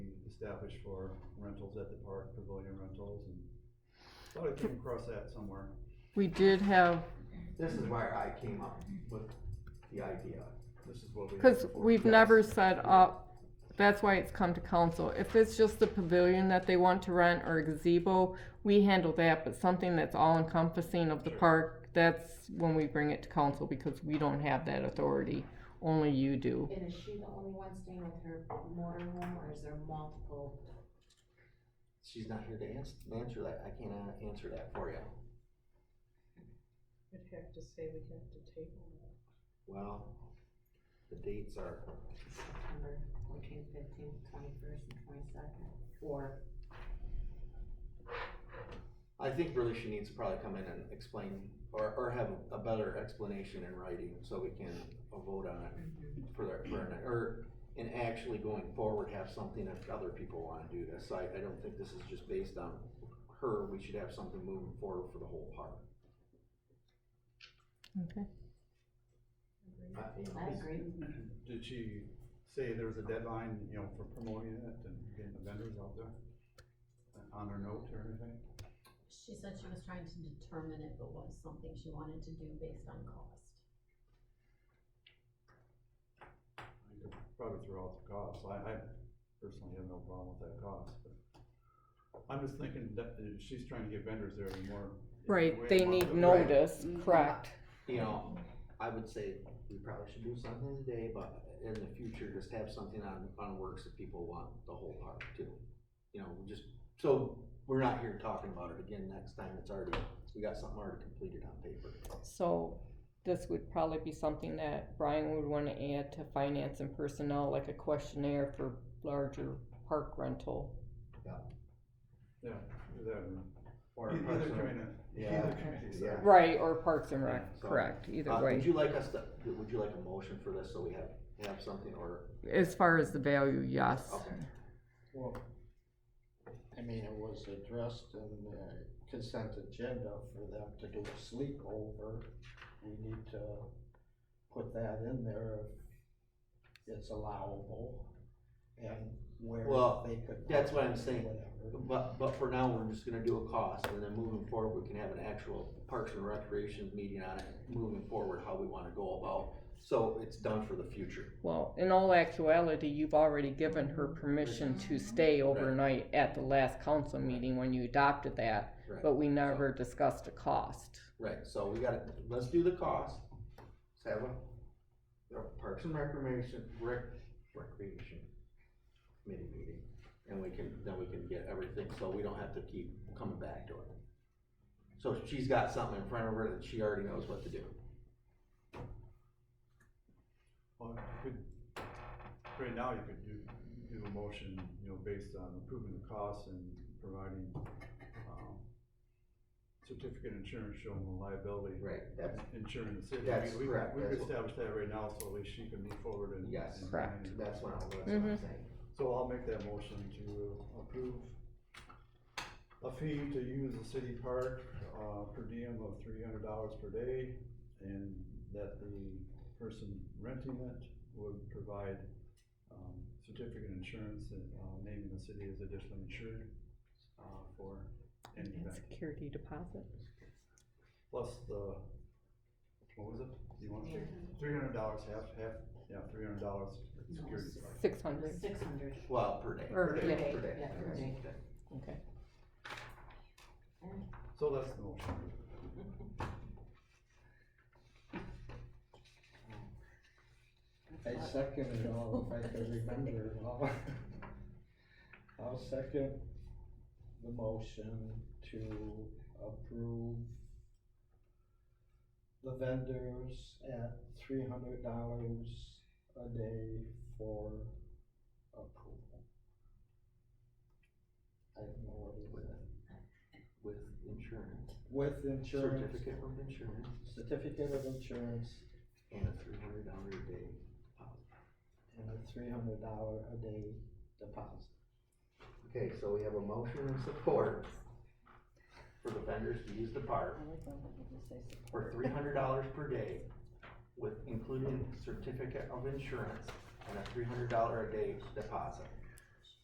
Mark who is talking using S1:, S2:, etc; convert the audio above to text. S1: established for rentals at the park, pavilion rentals, and thought I came across that somewhere.
S2: We did have,
S3: This is where I came up with the idea.
S1: This is what we. had
S2: because
S1: before.
S2: we've never set up, that's why it's come to council. If it's just the pavilion that they want to rent or a gazebo, we handle that, but something that's all encompassing of the park, that's when we bring it to council because we don't have that authority. Only you do.
S4: And is she the only one staying with her motorhome, or is there multiple?
S3: She's not here to ans- answer that. I can't uh, answer that for you.
S5: I'd have to say we have to table that.
S3: Well, the dates are,
S4: September fourteenth, fifteenth, twenty-first, and twenty-second, or
S3: I think really she needs to probably come in and explain or, or have a better explanation in writing so we can uh, vote on it for the, for, an- or, and actually going forward have something if other people wanna do this. I, I don't think this is just based on her. We should have something moving forward for the whole park.
S2: Okay.
S3: I- you know,
S4: I agree.
S1: Did she say there was a deadline, you know, for promoting it and getting the vendors out there? On her note or anything?
S6: She said she was trying to determine if it was something she wanted to do based on cost.
S1: I could Probably throw out the cost, I, I personally have no problem with that cost, but I'm just thinking that uh, she's trying to get vendors there more.
S2: Right,
S1: way
S2: they
S1: more-
S2: need
S1: Right.
S2: notice, correct.
S3: you know, I would say we probably should do something today, but in the future, just have something on, on works that people want the whole park too. You know, we just, so we're not here talking about it again next time, it's already, we got something already completed on paper.
S2: So this would probably be something that Brian would want to add to finance and personnel, like a questionnaire for larger park rental.
S1: Yeah, do that.
S3: Or a
S1: Either
S3: person-
S1: community-
S3: Yeah.
S1: either community center.
S3: Yeah.
S2: Right, or Parks and
S3: Yeah,
S2: Rec,
S3: so,
S2: correct, either
S3: Uh, Would
S2: way.
S3: you like us to, would you like a motion for this, so we have, have something, or,
S2: As far as the value, yes.
S3: okay,
S7: Well, I mean, it was addressed in the consent agenda for them to do a sleepover. We need to put that in there if it's allowable and where
S3: Well,
S7: they could.
S3: that's what I'm saying.
S7: Whatever.
S3: but, but for now, we're just gonna do a cost, and then moving forward, we can have an actual Parks and Recreation meeting on it, moving forward, how we wanna go about, so it's done for the future.
S2: Well, in all actuality, you've already given her permission to stay overnight at the last council meeting when you adopted that,
S3: Right,
S2: but we never discussed a cost.
S3: right, so we gotta, let's do the cost, let's have a, a Parks and Recreation, Rec, Recreation Committee meeting, and we can, then we can get everything, so we don't have to keep coming back to it. So she's got something in front of her that she already knows what to do.
S1: Well, you could, right now, you could do, do a motion, you know, based on approving the costs and providing, um, certificate insurance showing the liability.
S3: Right. That's,
S1: Insuring the city.
S3: That's
S1: We- we-
S3: correct.
S1: We've
S3: That's what-
S1: established that right now, so at least she can move forward and.
S3: Yes.
S1: and-
S2: Correct.
S3: that's what I'm, that's what
S4: Mm-hmm.
S3: I'm saying.
S1: So I'll make that motion to approve a fee to use the city park, uh, per diem of three hundred dollars per day, and that the person renting it would provide, um, certificate insurance, and, uh, naming the city as additional insured, uh, for any
S2: And
S1: event,
S2: security deposit.
S1: plus the, what was it? Do you want to, three hundred dollars, half, half, yeah, three hundred dollars for security.
S2: Six
S4: it
S2: hundred,
S4: was six hundred
S3: Well, per day.
S2: Or, yeah,
S4: per
S3: Per day.
S4: yeah, per
S3: That's
S4: day.
S3: okay.
S2: okay.
S1: So that's the motion.
S7: I second it all if I can remember it all. I'll second the motion to approve the vendors at three hundred dollars a day for approval. I don't know what it is.
S3: With insurance,
S7: With insurance,
S3: certificate of insurance,
S7: certificate of insurance
S3: and a three hundred dollar a day deposit.
S7: and a three hundred dollar a day deposit.
S3: Okay, so we have a motion and support for the vendors to use the park for three hundred dollars per day with including certificate of insurance and a three hundred dollar a day deposit.